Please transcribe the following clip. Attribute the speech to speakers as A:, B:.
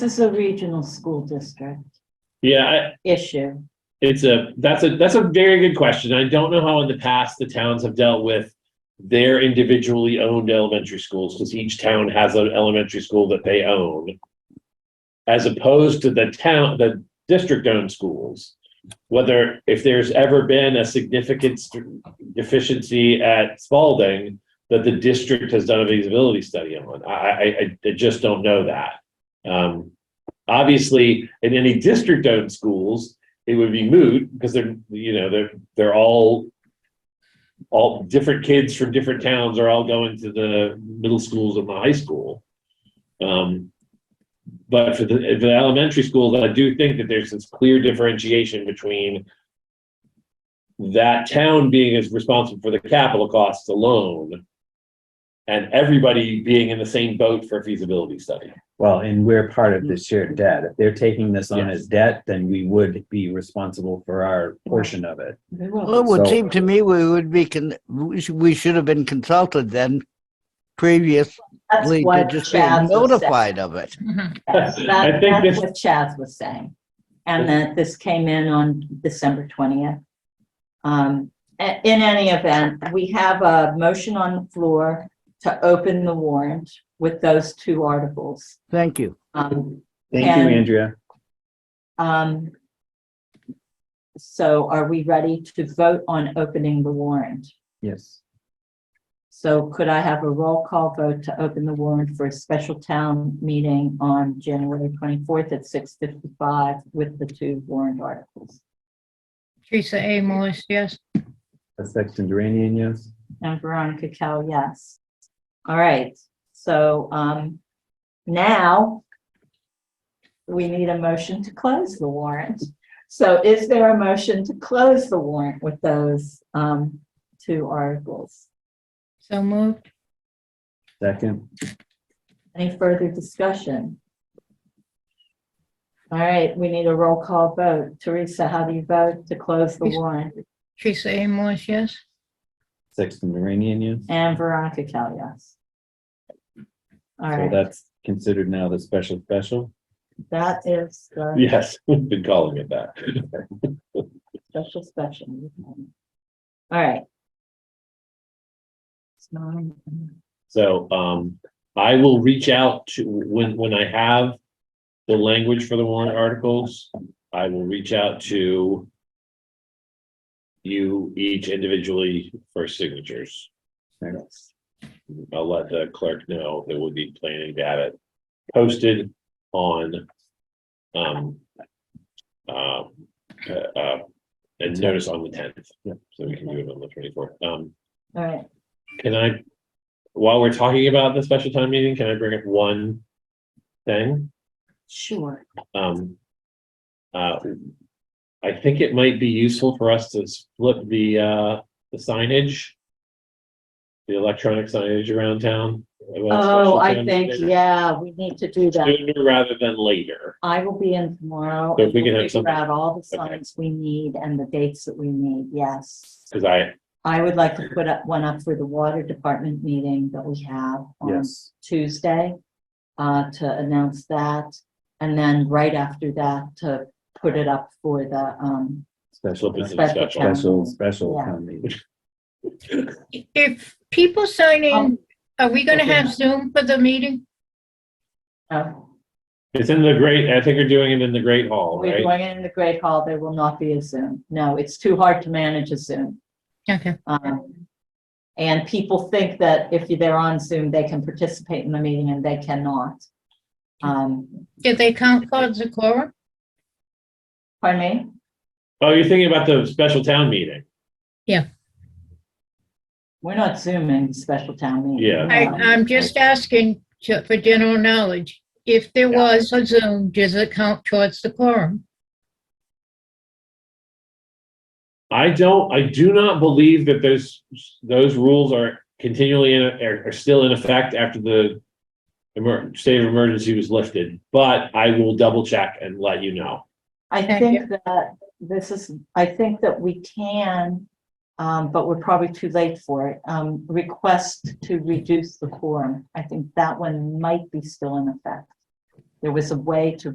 A: This is a regional school district
B: Yeah, I-
A: issue.
B: it's a, that's a, that's a very good question. I don't know how in the past the towns have dealt with their individually owned elementary schools, because each town has an elementary school that they own. As opposed to the town, the district-owned schools. Whether, if there's ever been a significant st- deficiency at Spalding that the district has done a feasibility study on, I, I, I- I just don't know that. Um, obviously, in any district-owned schools, it would be moot because they're you know they're they're all all different kids from different towns are all going to the middle schools and the high school. Um, but for the, for the elementary schools, I do think that there's this clear differentiation between that town being as responsible for the capital costs alone and everybody being in the same boat for a feasibility study.
C: Well, and we're part of the shared debt. If they're taking this on as debt, then we would be responsible for our portion of it.
A: They
D: Well, it
A: will.
D: would
C: So-
D: seem to me we would be, con- we sh- we should have been consulted then previously
A: That's
D: to
A: what
D: just be
A: Chaz was saying.
D: notified of it.
A: That's
B: I
A: that-
B: think
A: that's
B: this-
A: what Chaz was saying. And that this came in on December twentieth. Um, a- in any event, we have a motion on the floor to open the warrant with those two articles.
D: Thank you.
A: Um,
C: Thank
A: And-
C: you, Andrea.
A: um, so are we ready to vote on opening the warrant?
C: Yes.
A: So could I have a roll call vote to open the warrant for a special town meeting on January twenty-fourth at six fifty-five with the two warrant articles?
E: Teresa A. Moise, yes.
C: A Sexton Duranian, yes.
A: And Veronica Cal, yes. All right, so, um, now we need a motion to close the warrant. So is there a motion to close the warrant with those, um, two articles?
E: So moved.
C: Second,
A: Any further discussion? All right, we need a roll call vote. Teresa, how do you vote to close the warrant?
E: Teresa A. Moise, yes.
C: Sexton Duranian, yes.
A: And Veronica Cal, yes. All
C: So
A: right,
C: that's considered now the special special.
A: that is the
B: Yes, we've been calling it that.
A: special session. All right. It's nine.
B: So um, I will reach out to, when, when I have the language for the warrant articles, I will reach out to you each individually for signatures. I'll let the clerk know that we'll be planning to have it posted on um um, uh, uh, and notice on the tenth, so we can do it on the twenty-fourth. Um,
A: All right,
B: can I, while we're talking about the special town meeting, can I bring up one thing?
A: sure.
B: Um, uh, I think it might be useful for us to split the, uh, the signage, the electronic signage around town. about
A: Oh,
B: special
A: I
B: town
A: think,
B: meeting
A: yeah, we need to do that.
B: Sooner rather than later.
A: I will be in tomorrow.
B: So if we
A: and
B: can
A: we'll
B: have
A: figure
B: something-
A: Out all the
B: Okay.
A: signs we need and the dates that we need, yes.
B: Cause I,
A: I would like to put up one up for the water department meeting that we have on
C: Yes.
A: Tuesday. Uh, to announce that, and then right after that to put it up for the, um,
C: Special,
B: slip into the
A: Special
B: special.
A: town.
C: special, special.
A: Yeah.
C: town meeting.
E: If people sign in,
A: Um,
E: are we going to
A: okay.
E: have Zoom for the meeting?
A: uh,
B: It's in the great, I think you're doing it in the great hall,
A: we're
B: right?
A: going in the Great Hall, there will not be a Zoom. No, it's too hard to manage a Zoom.
E: Okay,
A: Um, and people think that if they're on Zoom, they can participate in the meeting and they cannot. Um,
E: did they count Claude Zakora?
A: pardon me?
B: Oh, you're thinking about the special town meeting?
A: We're not zooming special town meeting.
B: Yeah.
E: I,
A: Um,
E: I'm just asking ju- for general knowledge. If there was a Zoom, does it count towards the quorum?
B: I don't, I do not believe that those, those rules are continually in, are, are still in effect after the emer, state of emergency was lifted, but I will double check and let you know.
A: I
E: Thank
A: think that this is, I think that we can, um, but we're probably too late for it, um, request to reduce the quorum. I think that one might be still in effect. there was a way to